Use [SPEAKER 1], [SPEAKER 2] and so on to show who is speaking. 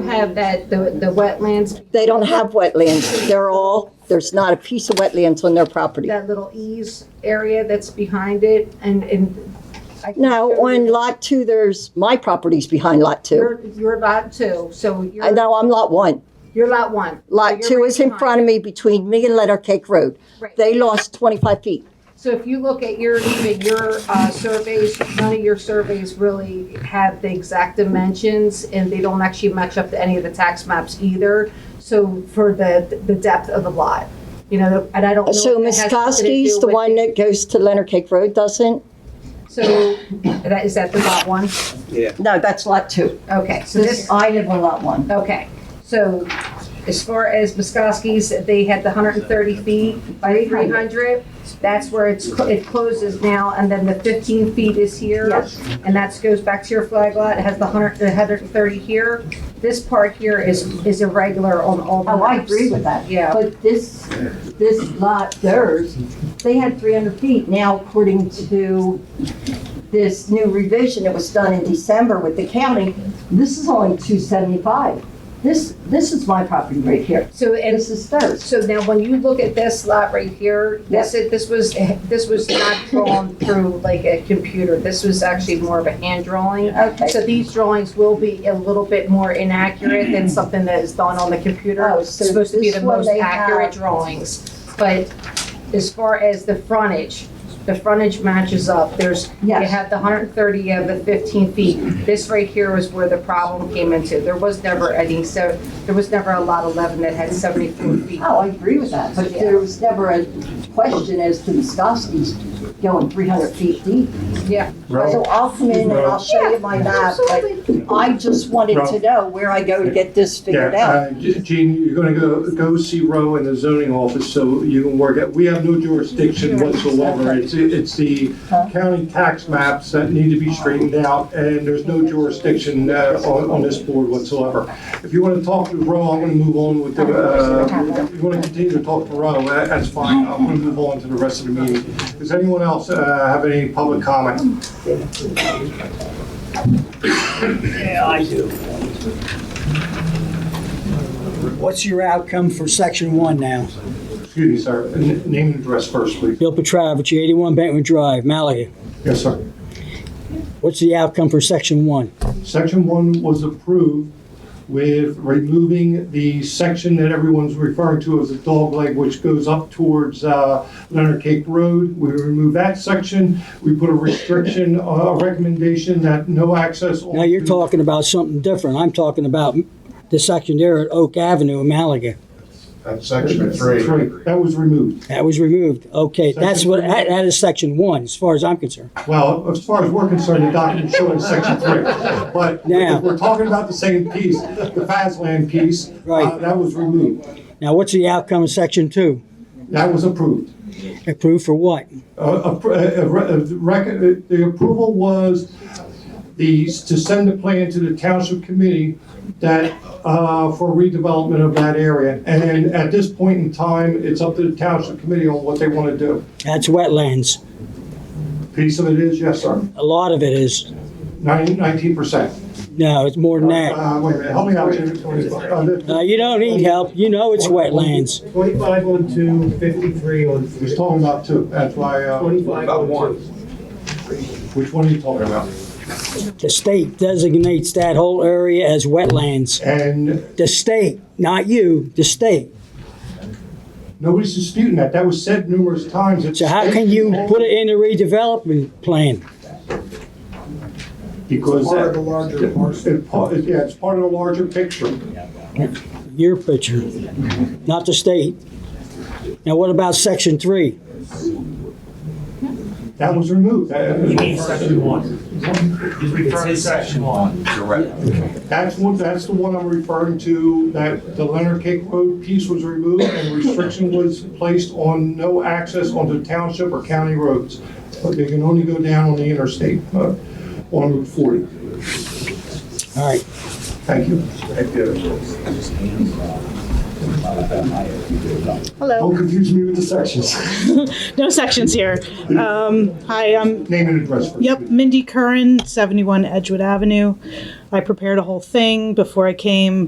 [SPEAKER 1] have that, the, the wetlands,
[SPEAKER 2] They don't have wetlands. They're all, there's not a piece of wetlands on their property.
[SPEAKER 1] that little ease area that's behind it and, and. I can
[SPEAKER 2] Now,
[SPEAKER 1] show
[SPEAKER 2] on
[SPEAKER 1] you
[SPEAKER 2] lot two, there's, my property's behind lot two.
[SPEAKER 1] Your, your lot two, so
[SPEAKER 2] I
[SPEAKER 1] your,
[SPEAKER 2] know I'm lot one.
[SPEAKER 1] your lot one.
[SPEAKER 2] Lot two is in front of me between me and Letter Cake Road.
[SPEAKER 1] Right.
[SPEAKER 2] They lost 25 feet.
[SPEAKER 1] So if you look at your, even your uh, surveys, none of your surveys really have the exact dimensions, and they don't actually match up to any of the tax maps either, so for the, the depth of the lot, you know, and I don't know.
[SPEAKER 2] So
[SPEAKER 1] if that
[SPEAKER 2] Ms.
[SPEAKER 1] has something to
[SPEAKER 2] Koski's
[SPEAKER 1] do
[SPEAKER 2] the
[SPEAKER 1] with-
[SPEAKER 2] one that goes to Leonard Cake Road, doesn't?
[SPEAKER 1] So, that, is that the lot one?
[SPEAKER 2] No, that's lot two.
[SPEAKER 1] Okay, so this,
[SPEAKER 2] I live on lot one.
[SPEAKER 1] okay, so as far as Muskowski's, they had the hundred and thirty feet by three hundred, that's where it's, cl- it closes now, and then the fifteen feet is here.
[SPEAKER 2] Yes.
[SPEAKER 1] And that goes back to your flag lot, it has the hundred, the hundred and thirty here. This part here is, is irregular on all the
[SPEAKER 3] Oh, I
[SPEAKER 1] maps.
[SPEAKER 3] agree with that.
[SPEAKER 1] Yeah.
[SPEAKER 3] But this, this lot, theirs, they had 300 feet. Now, according to this new revision that was done in December with the county, this is only 275. This, this is my property right here.
[SPEAKER 1] So, and
[SPEAKER 3] This is theirs.
[SPEAKER 1] so now when you look at this lot right here, this, is- this was, this was not drawn through like a computer. This was actually more of a hand drawing.
[SPEAKER 3] Okay.
[SPEAKER 1] So these drawings will be a little bit more inaccurate than something that is done on the computer.
[SPEAKER 3] Oh,
[SPEAKER 1] It's
[SPEAKER 3] so
[SPEAKER 1] supposed to be
[SPEAKER 3] this
[SPEAKER 1] the
[SPEAKER 3] one
[SPEAKER 1] most
[SPEAKER 3] they
[SPEAKER 1] accurate
[SPEAKER 3] have-
[SPEAKER 1] drawings. But as far as the frontage, the frontage matches up. There's, you
[SPEAKER 3] Yes.
[SPEAKER 1] have the hundred and thirty of the fifteen feet. This right here was where the problem came into. There was never any, so, there was never a lot eleven that had seventy-four feet.
[SPEAKER 3] Oh, I agree with that, but there was never a question as to Muskowski's going 300 feet deep.
[SPEAKER 1] Yeah.
[SPEAKER 3] So I'll come in and I'll show you my map, but I just wanted to
[SPEAKER 4] Ralph.
[SPEAKER 3] know where I go to get this figured
[SPEAKER 4] Yeah,
[SPEAKER 3] out.
[SPEAKER 4] uh, G- Gene, you're gonna go, go see Roe in the zoning office, so you can work out, we have no jurisdiction whatsoever. It's, it's the county tax maps that need to be straightened out, and there's no jurisdiction, uh, on, on this board whatsoever. If you wanna talk to Roe, I'm gonna move on with the, uh, if you wanna continue to talk to Roe, that- that's fine, I'm gonna move on to the rest of the meeting. Does anyone else, uh, have any public comment?
[SPEAKER 5] Yeah, I do. What's your outcome for section one now?
[SPEAKER 4] Excuse me, sir, N- name and address first, please.
[SPEAKER 5] Bill Petrovich, eighty-one Bentwood Drive, Malaga.
[SPEAKER 4] Yes, sir.
[SPEAKER 5] What's the outcome for section one?
[SPEAKER 4] Section one was approved with removing the section that everyone's referring to as a dog leg, which goes up towards uh, Leonard Cake Road. We removed that section. We put a restriction, a recommendation that no access.
[SPEAKER 5] Now you're talking about something different. I'm talking about the section there at Oak Avenue in Malaga.
[SPEAKER 6] That's section three.
[SPEAKER 4] Right, That was removed.
[SPEAKER 5] That was removed. Okay, that's what, that that is section one, as far as I'm concerned.
[SPEAKER 4] Well, as far as we're concerned, the document showing section three. But
[SPEAKER 5] Yeah.
[SPEAKER 4] if we're talking about the same piece, the Fazland piece, uh,
[SPEAKER 5] Right.
[SPEAKER 4] that was removed.
[SPEAKER 5] Now, what's the outcome of section two?
[SPEAKER 4] That was approved.
[SPEAKER 5] Approved for what?
[SPEAKER 4] Uh, appro- uh, uh, re- uh, rec- uh, The approval was the, to send the plan to the township committee that, uh, for redevelopment of that area. And at this point in time, it's up to the township committee on what they want to do.
[SPEAKER 5] That's wetlands.
[SPEAKER 4] Piece of it is, yes, sir,
[SPEAKER 5] A lot of it is.
[SPEAKER 4] nineteen percent.
[SPEAKER 5] No, it's more than that.
[SPEAKER 4] Uh, wait a minute, help me out, Jimmy. Uh,
[SPEAKER 5] No,
[SPEAKER 4] the-
[SPEAKER 5] you don't need help. You know it's wetlands.
[SPEAKER 7] 25 on two, 53 on
[SPEAKER 4] He was
[SPEAKER 7] three.
[SPEAKER 4] talking about two, that's why, uh,
[SPEAKER 7] 25 on two.
[SPEAKER 4] which one are you talking about?
[SPEAKER 5] The state designates that whole area as wetlands.
[SPEAKER 4] And
[SPEAKER 5] The state, not you, the state.
[SPEAKER 4] nobody's disputing that, that was said numerous times. It's-
[SPEAKER 5] So how can you put it in the redevelopment plan?
[SPEAKER 4] Because.
[SPEAKER 7] Part of
[SPEAKER 4] that-
[SPEAKER 7] the larger parcel.
[SPEAKER 4] It pa- it- Yeah, it's part of the larger picture.
[SPEAKER 5] Your picture, not the state. Now, what about section three?
[SPEAKER 4] That was removed. That-
[SPEAKER 8] Section one. He's referring to section one.
[SPEAKER 4] That's one, that's the one I'm referring to, that the Leonard Cake Road piece was removed and restriction was placed on no access onto township or county roads. But They can only go down on the interstate, uh, on Route 40.
[SPEAKER 5] All right,
[SPEAKER 4] Thank you.
[SPEAKER 9] Hello.
[SPEAKER 4] Don't confuse me with the sections.
[SPEAKER 9] No sections here. Um, hi, I'm,
[SPEAKER 4] Name and address first.
[SPEAKER 9] yep, Mindy Curran, 71 Edgewood Avenue. I prepared a whole thing before I came,